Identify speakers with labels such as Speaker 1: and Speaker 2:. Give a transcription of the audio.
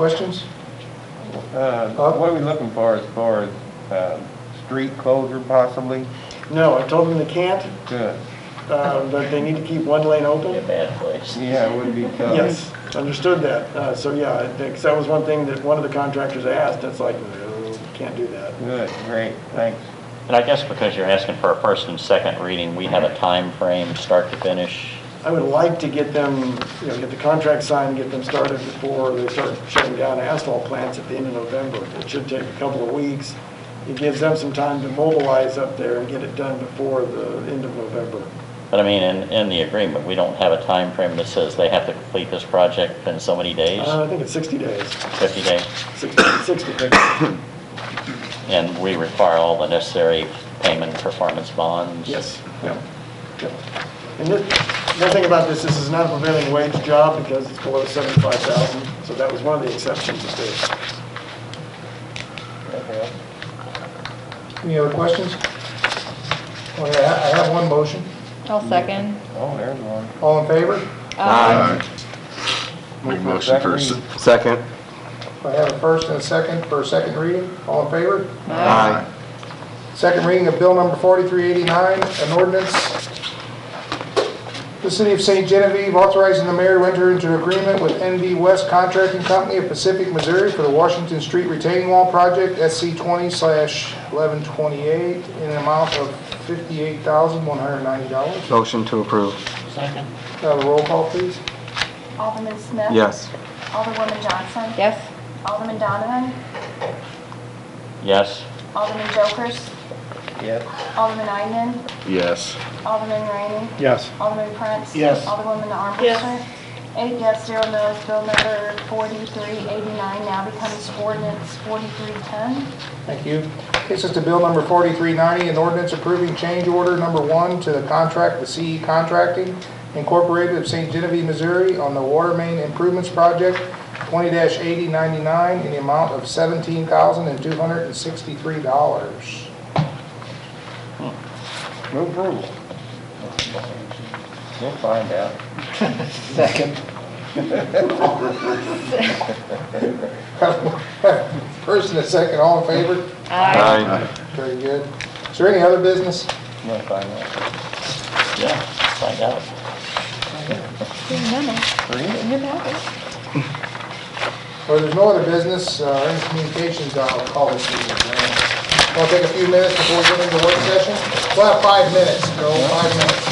Speaker 1: questions?
Speaker 2: Uh,
Speaker 1: Huh?
Speaker 2: What are we looking for as far as um, street closure possibly?
Speaker 1: No, I told them they can't,
Speaker 2: Good.
Speaker 1: uh, that they need to keep one lane
Speaker 3: Be a
Speaker 1: open.
Speaker 3: bad place.
Speaker 2: Yeah, it would be tough.
Speaker 1: Yes, understood that. Uh, So, yeah, I think- 'cause that was one thing that one of the contractors asked, it's like, no, can't do that.
Speaker 2: Good, great, thanks.
Speaker 3: And I guess because you're asking for a first and second reading, we have a time frame, start to finish.
Speaker 1: I would like to get them, you know, get the contract signed, get them started before they start shutting down asphalt plants at the end of November. It should take a couple of weeks. It gives them some time to mobilize up there and get it done before the end of November.
Speaker 3: But I mean, in, in the agreement, we don't have a time frame that says they have to complete this project in so many days,
Speaker 1: Uh, I think it's 60 days,
Speaker 3: 50 days,
Speaker 1: 60, 60 days.
Speaker 3: and we require all the necessary payment performance bonds.
Speaker 1: Yes, yeah, yeah. And this, the thing about this, this is not a prevailing wage job because it's below 75,000, so that was one of the exceptions of this. Any other questions? Okay, I I have one motion.
Speaker 4: I'll second. Uh,
Speaker 2: Oh, there's one.
Speaker 1: All in favor?
Speaker 5: Aye. Make a motion for, a se-
Speaker 6: Second.
Speaker 1: I have a first and a second for a second reading. All in favor?
Speaker 6: Aye.
Speaker 1: Second reading of Bill Number 4389, an ordinance, the City of St. Genevieve authorizing the mayor to enter into agreement with NV West Contracting Company of Pacific, Missouri for the Washington Street Retaining Wall Project, SC 20/1128, in an amount of $58,190.
Speaker 6: Motion to approve.
Speaker 1: Have a roll call, please.
Speaker 7: Alderman Smith.
Speaker 6: Yes.
Speaker 7: Alderwoman Johnson.
Speaker 4: Yes?
Speaker 7: Alderman Donovan.
Speaker 3: Yes?
Speaker 7: Alderman Jokers.
Speaker 2: Yes.
Speaker 7: Alderman Eidman.
Speaker 5: yes.
Speaker 7: Alderman Rainey.
Speaker 1: Yes.
Speaker 7: Alderman Prince.
Speaker 1: Yes.
Speaker 7: Alderwoman Armbrester. Eight yes, zero no's. Bill number 4389 now becomes ordinance 4310.
Speaker 1: Thank you. Takes us to Bill Number 4390, an ordinance approving change order number one to the contract with CE Contracting Incorporated of St. Genevieve, Missouri on the Water Main Improvements Project 20-8099 in the amount of $17,263.
Speaker 2: Move approval. We'll find out.
Speaker 1: First and a second, all in favor?
Speaker 4: Aye.
Speaker 6: Aye.
Speaker 1: Very good. Is there any other business?
Speaker 2: We'll find out.
Speaker 3: Yeah, find out.
Speaker 1: Well, there's no other business uh, or any communications, I'll call this meeting adjourned. We'll take a few minutes before we get into work session. We'll have five minutes, Joel, five minutes.